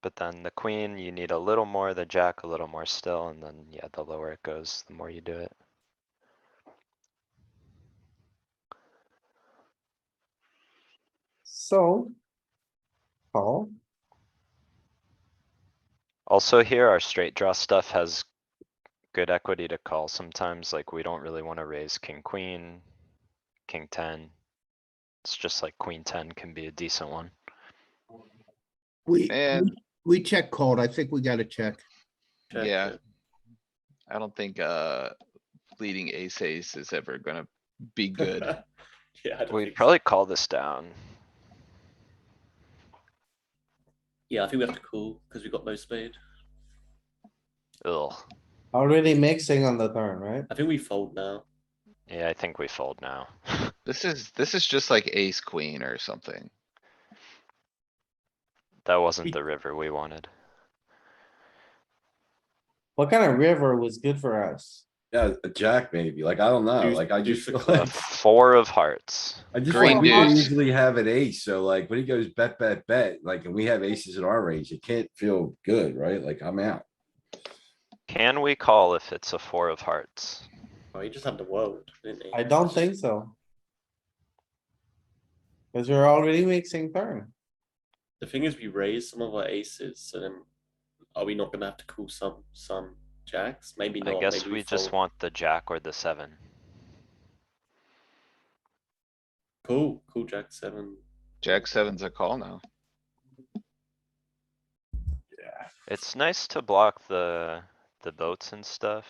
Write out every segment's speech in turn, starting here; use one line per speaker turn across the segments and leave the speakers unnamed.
But then the queen, you need a little more, the jack a little more still, and then, yeah, the lower it goes, the more you do it.
So. Call,
Also here, our straight draw stuff has good equity to call sometimes, like we don't really wanna raise king, queen, king ten. It's just like queen ten can be a decent one.
We,
Man.
we- we check called. I think we gotta check.
Check
Yeah.
it.
I don't think, uh, leading ace ace is ever gonna be good.
Yeah, I don't
We'd
think so.
probably call this down.
Yeah, I think we have to call because we've got low spade.
Ugh,
already mixing on the turn, right?
I think we fold now.
yeah, I think we fold now.
This is, this is just like ace queen or something.
That wasn't the river we wanted.
What kind of river was good for us?
Yeah, a jack maybe, like, I don't know,
Deuce-
like, I just
deuce of
feel
A
like,
Four of hearts.
I just
Green
like, we don't
deuce.
usually have an ace, so like, when he goes bet, bet, bet, like, and we have aces in our range, it can't feel good, right? Like, I'm out.
Can we call if it's a four of hearts?
Oh, he just had the world, didn't he?
I don't think so. Cause you're already mixing turn.
The thing is, we raised some of our aces, so then are we not going to have to call some some jacks? Maybe not.
I guess
maybe
we just
fold.
want the jack or the seven.
cool, cool jack seven.
Jack seven's a call now.
It's nice to block the, the boats and stuff.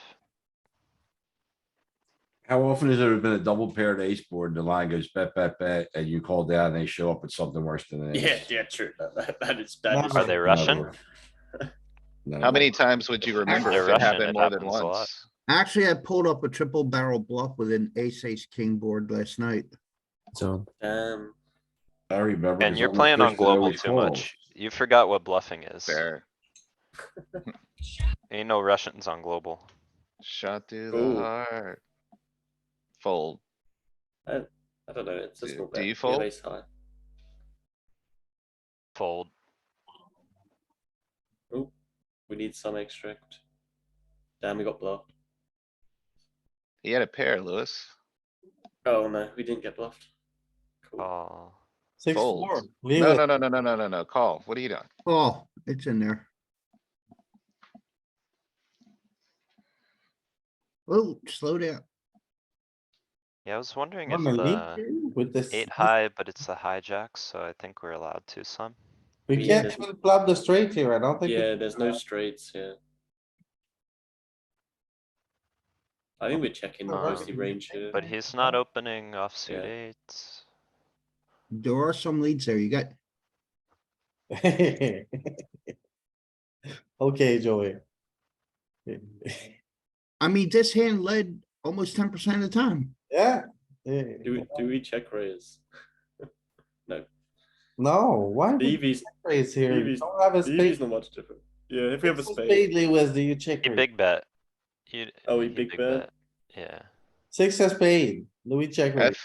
How often has there been a double paired ace board and the line goes bet, bet, bet, and you call down and they show up with something worse than an
Yeah,
ace?
yeah, true. That, that, that is that is
Are they Russian?
No.
How many times would you remember
they're
if it
Russian,
happened
it
more than
happens a lot.
once?
Actually, I pulled up a triple barrel bluff with an ace, ace, king board last night.
So
um.
I remember.
And
'cause
you're
I'm the
playing on
person that
global
always
too
calls.
much. You forgot what bluffing is.
Fair.
Ain't no Russians on global.
Shot through
Ooh.
the heart. Fold.
I don't know. It's just
Do-
not
do
bad.
you
Yeah,
fold?
ace high.
Fold.
Oh, we need some extract. Damn, we got bluffed.
He had a pair, Lewis.
Oh no, we didn't get bluffed. Cool.
Oh,
Six,
Fold.
four. Leave
No,
it.
no, no, no, no, no, no, no. Call. What are you doing?
Oh, it's in there. Oh, slow down.
yeah, I was wondering if
I'm gonna
uh,
lead
the
you With this,
eight high, but it's the hijack, so I think we're allowed to some.
we
Yeah,
can't
there's-
even flop the straight here. I don't think. we-
Yeah, there's no straights here. I think we're checking
Uh,
mostly range here.
But he's not opening offsuit
Yeah.
eights.
There are some leads there. You got,
Okay, Joey.
I mean, this hand led almost ten percent of the time.
Yeah.
Do we, do we check raise?
No, why? would you
Evie's,
Raise here. You
Evie's-
don't have a spade.
Evie's not E much different. Yeah, if we have a
What's the
spade,
Lewis, do you check?
He
raise?
big bet. He-
Oh, he big bet?
Yeah,
Six of spade, Louis check.
I,
raise.
th-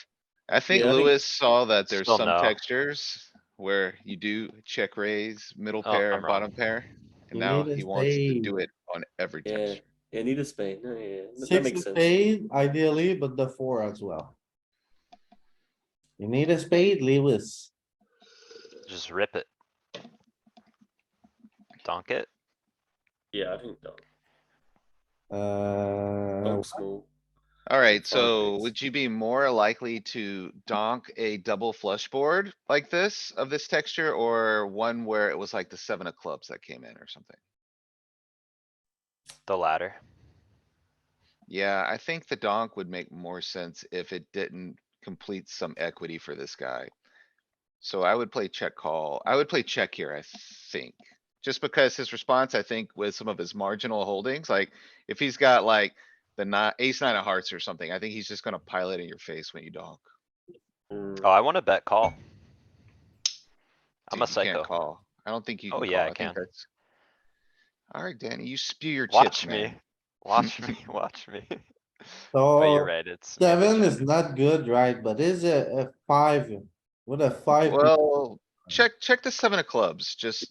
I think
Yeah, I think-
Lewis saw that there's
Still
some
no.
textures where you do check raise, middle
Oh,
pair,
I'm
and
wrong.
bottom pair.
You
And now
need a
he wants to
spade.
do it on every
Yeah.
texture.
yeah, need a spade. No, yeah, that- that
Six
makes
of
sense.
spade ideally, but the four as well. You need a spade, Lewis.
just rip it. Donk it.
Yeah, I think don't,
Uh, Oh.
Oh,
don't small.
Alright,
Solid
so
base.
would you be more likely to donk a double flush board like this of this texture or one where it was like the seven of clubs that came in or something?
The ladder.
Yeah, I think the donk would make more sense if it didn't complete some equity for this guy. So I would play check call. I would play check here, I think. Just because his response, I think, with some of his marginal holdings, like if he's got like the nine, ace nine of hearts or something, I think he's just gonna pile it in your face when you donk.
Mm,
Oh, I wanna bet call. I'm a
Dude, you can't
psycho.
Call. I don't think you.
Oh,
can
yeah,
call.
I
think
can.
that's- Alright, Danny, you spew your chips,
Watch me,
man.
watch me, watch me. But oh, you're
so
right, it's. maybe
seven
just-
is not good, right? But is a, a five, with a five?
Well, check, check the seven of clubs, just